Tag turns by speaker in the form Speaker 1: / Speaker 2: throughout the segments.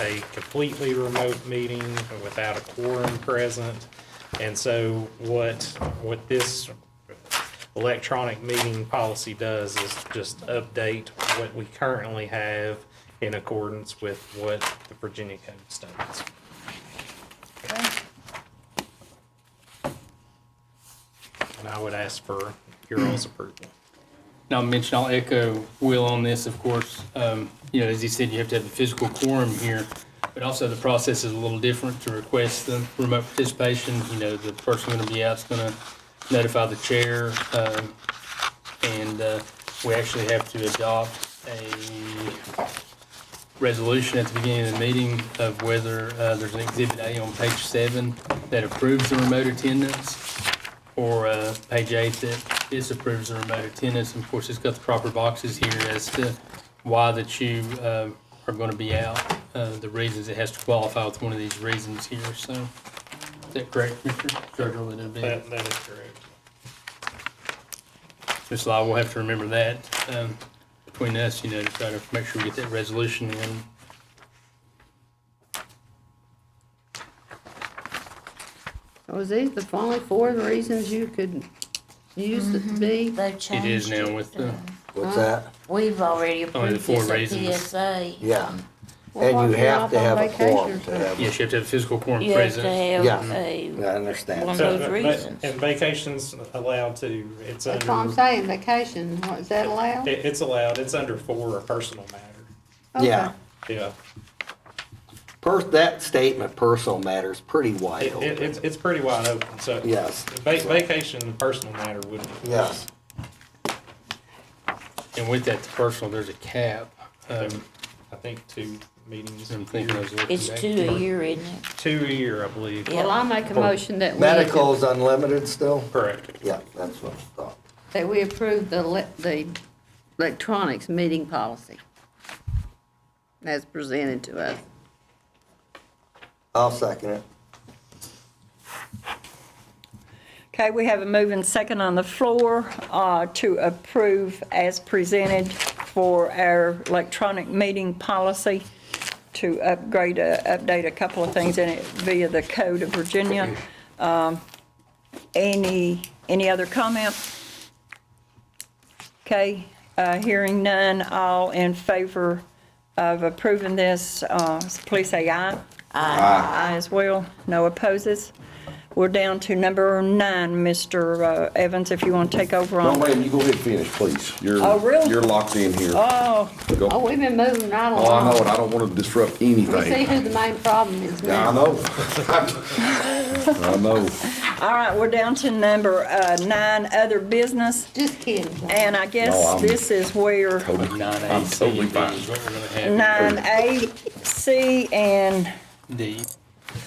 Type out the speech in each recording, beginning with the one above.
Speaker 1: a completely remote meeting without a quorum present. And so what, what this electronic meeting policy does is just update what we currently have in accordance with what the Virginia Code states.
Speaker 2: Okay.
Speaker 1: And I would ask for your all's approval.
Speaker 3: Now, Mitch, and I'll echo Will on this, of course. Um, You know, as he said, you have to have the physical quorum here, but also the process is a little different to request the remote participation. You know, the person going to be out's going to notify the chair, um, and uh, we actually have to adopt a resolution at the beginning of the meeting of whether uh, there's an Exhibit A on page seven that approves the remote attendance or uh, page eight that disapproves the remote attendance. And of course, it's got the proper boxes here as to why that you uh, are going to be out, uh, the reasons it has to qualify with one of these reasons here. So is that correct, Mr. Gergel? That it'd be-
Speaker 1: That, that is correct.
Speaker 3: Ms. Law, we'll have to remember that um, between us, you know, to try to make sure we get that resolution in.
Speaker 4: Was these the only four reasons you could use it to be?
Speaker 2: They've changed. uh,
Speaker 3: It is now with the,
Speaker 5: What's that?
Speaker 2: We've already
Speaker 3: Only the
Speaker 2: approved
Speaker 3: four
Speaker 2: this at
Speaker 3: reasons.
Speaker 2: PSA.
Speaker 5: Yeah.
Speaker 4: Well, why
Speaker 5: And you
Speaker 4: if you're
Speaker 5: have
Speaker 4: off
Speaker 5: to
Speaker 4: on
Speaker 5: have a
Speaker 4: vacation
Speaker 5: quorum
Speaker 4: or
Speaker 5: to
Speaker 4: something?
Speaker 5: have.
Speaker 3: yes, you have to have physical quorum
Speaker 2: You have to
Speaker 3: present.
Speaker 2: have
Speaker 5: Yeah.
Speaker 2: a,
Speaker 5: I
Speaker 2: one
Speaker 5: understand.
Speaker 1: So, but-
Speaker 2: of those
Speaker 1: but-
Speaker 2: reasons.
Speaker 1: And vacation's allowed to, it's
Speaker 4: That's what I'm
Speaker 1: under,
Speaker 4: saying, vacation, what, is that allowed?
Speaker 1: it- it's allowed, it's under for a personal matter.
Speaker 4: Okay.
Speaker 5: Yeah.
Speaker 1: Yeah,
Speaker 5: Per, that statement, personal matters, pretty wide
Speaker 1: it, it,
Speaker 5: open.
Speaker 1: it's, it's pretty wide open, so.
Speaker 5: Yes.
Speaker 1: Va- vacation and personal matter would.
Speaker 5: Yes.
Speaker 3: And with that personal, there's a cap. Um,
Speaker 1: I think two meetings,
Speaker 3: I'm thinking I was looking
Speaker 2: It's
Speaker 3: back.
Speaker 2: two a year, isn't it?
Speaker 1: two a year, I believe.
Speaker 2: Yeah.
Speaker 4: Well, I make a motion that we.
Speaker 5: Medical's unlimited still?
Speaker 1: Correct.
Speaker 5: Yeah, that's what I thought.
Speaker 4: That we approve the, le- the electronics meeting policy as presented to us.
Speaker 5: I'll second it.
Speaker 6: Okay, we have a move and second on the floor uh, to approve as presented for our electronic meeting policy to upgrade, uh, update a couple of things in it via the Code of Virginia. Um, Any, any other comment? Okay, uh, hearing none, all in favor of approving this, uh, please say aye. Aye. Aye as well, no opposes. We're down to number nine, Mr. uh, Evans, if you want to take over
Speaker 7: No,
Speaker 6: on.
Speaker 7: ma'am, you go ahead and finish, please. You're,
Speaker 6: Oh, really?
Speaker 7: you're locked in here.
Speaker 6: Oh,
Speaker 7: Go-
Speaker 4: Oh, we've been moving right
Speaker 7: Oh, I know,
Speaker 4: along.
Speaker 7: and I don't want to disrupt
Speaker 4: We see
Speaker 7: anything.
Speaker 4: who the main problem is
Speaker 7: I
Speaker 4: now.
Speaker 7: know. I know.
Speaker 6: all right, we're down to number uh, nine, other business.
Speaker 4: Just kidding.
Speaker 6: And I
Speaker 7: No,
Speaker 6: guess
Speaker 7: I'm-
Speaker 6: this is where
Speaker 3: Nine A,
Speaker 7: I'm
Speaker 3: C,
Speaker 7: totally
Speaker 3: D
Speaker 7: fine.
Speaker 3: is what we're gonna have.
Speaker 6: nine A, C, and
Speaker 3: D.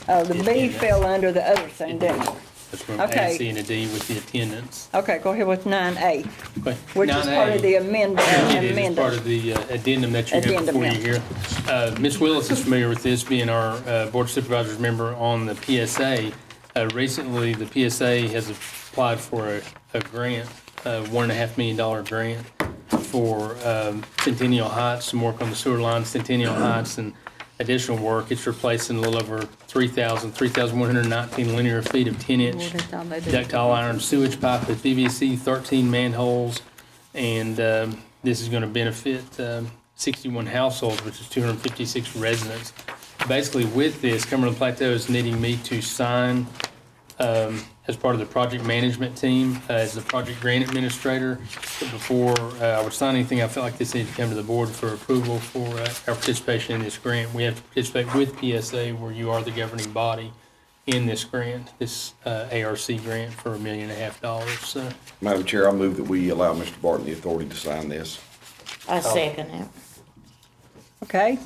Speaker 6: uh, the B fell under the other thing, didn't it?
Speaker 3: That's from A,
Speaker 6: Okay.
Speaker 3: C, and a D with the attendance.
Speaker 6: Okay, go ahead with nine A,
Speaker 3: Okay,
Speaker 6: which is
Speaker 3: 9A.
Speaker 6: part of the amend-
Speaker 3: It is it's part
Speaker 6: amendment.
Speaker 3: of the uh, addendum that you have
Speaker 6: Addendum,
Speaker 3: before you
Speaker 6: yeah.
Speaker 3: here. Uh, Ms. Willis is familiar with this, being our uh, Board of Supervisors member on the PSA. Uh, Recently, the PSA has applied for a- a grant, a one and a half million dollar grant for um, Centennial Heights, some work on the sewer line, Centennial Heights, and additional work. It's replacing a little over 3,000, 3,119 linear feet of 10-inch
Speaker 4: Lord, I thought they did.
Speaker 3: ductile iron sewage pipe with PVC, 13 manholes, and um, this is going to benefit um, 61 households, which is 256 residents. Basically, with this, Cumberland Plateau is needing me to sign um, as part of the project management team, uh, as the project grant administrator. But Before uh, I would sign anything, I felt like this needed to come to the board for approval for uh, our participation in this grant. We have to participate with PSA, where you are the governing body in this grant, this uh, ARC grant for a million and a half dollars. uh, So
Speaker 7: Madam Chair, I move that we allow Mr. Barton the authority to sign this.
Speaker 5: Oh.
Speaker 2: I second it.
Speaker 6: Okay.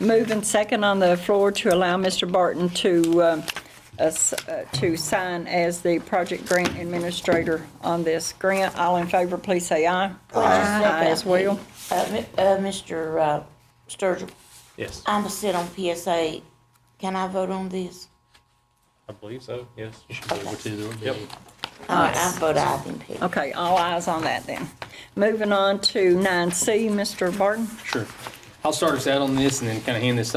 Speaker 6: Move and second on the floor to allow Mr. Barton to, um, us- uh, to sign as the project grant administrator on this grant. All in favor, please say aye. Aye as well.
Speaker 2: Uh, mi- uh, Mr. uh, Sturgill,
Speaker 1: Yes,
Speaker 2: I'm sit on PSA. Can I vote on this?
Speaker 1: I believe so, yes.
Speaker 3: which is
Speaker 1: Yep.
Speaker 2: All right, I vote aye then, Pete.
Speaker 6: Okay, all eyes on that then. Moving on to nine C, Mr. Barton.
Speaker 3: Sure. I'll start us out on this and then kind of hand this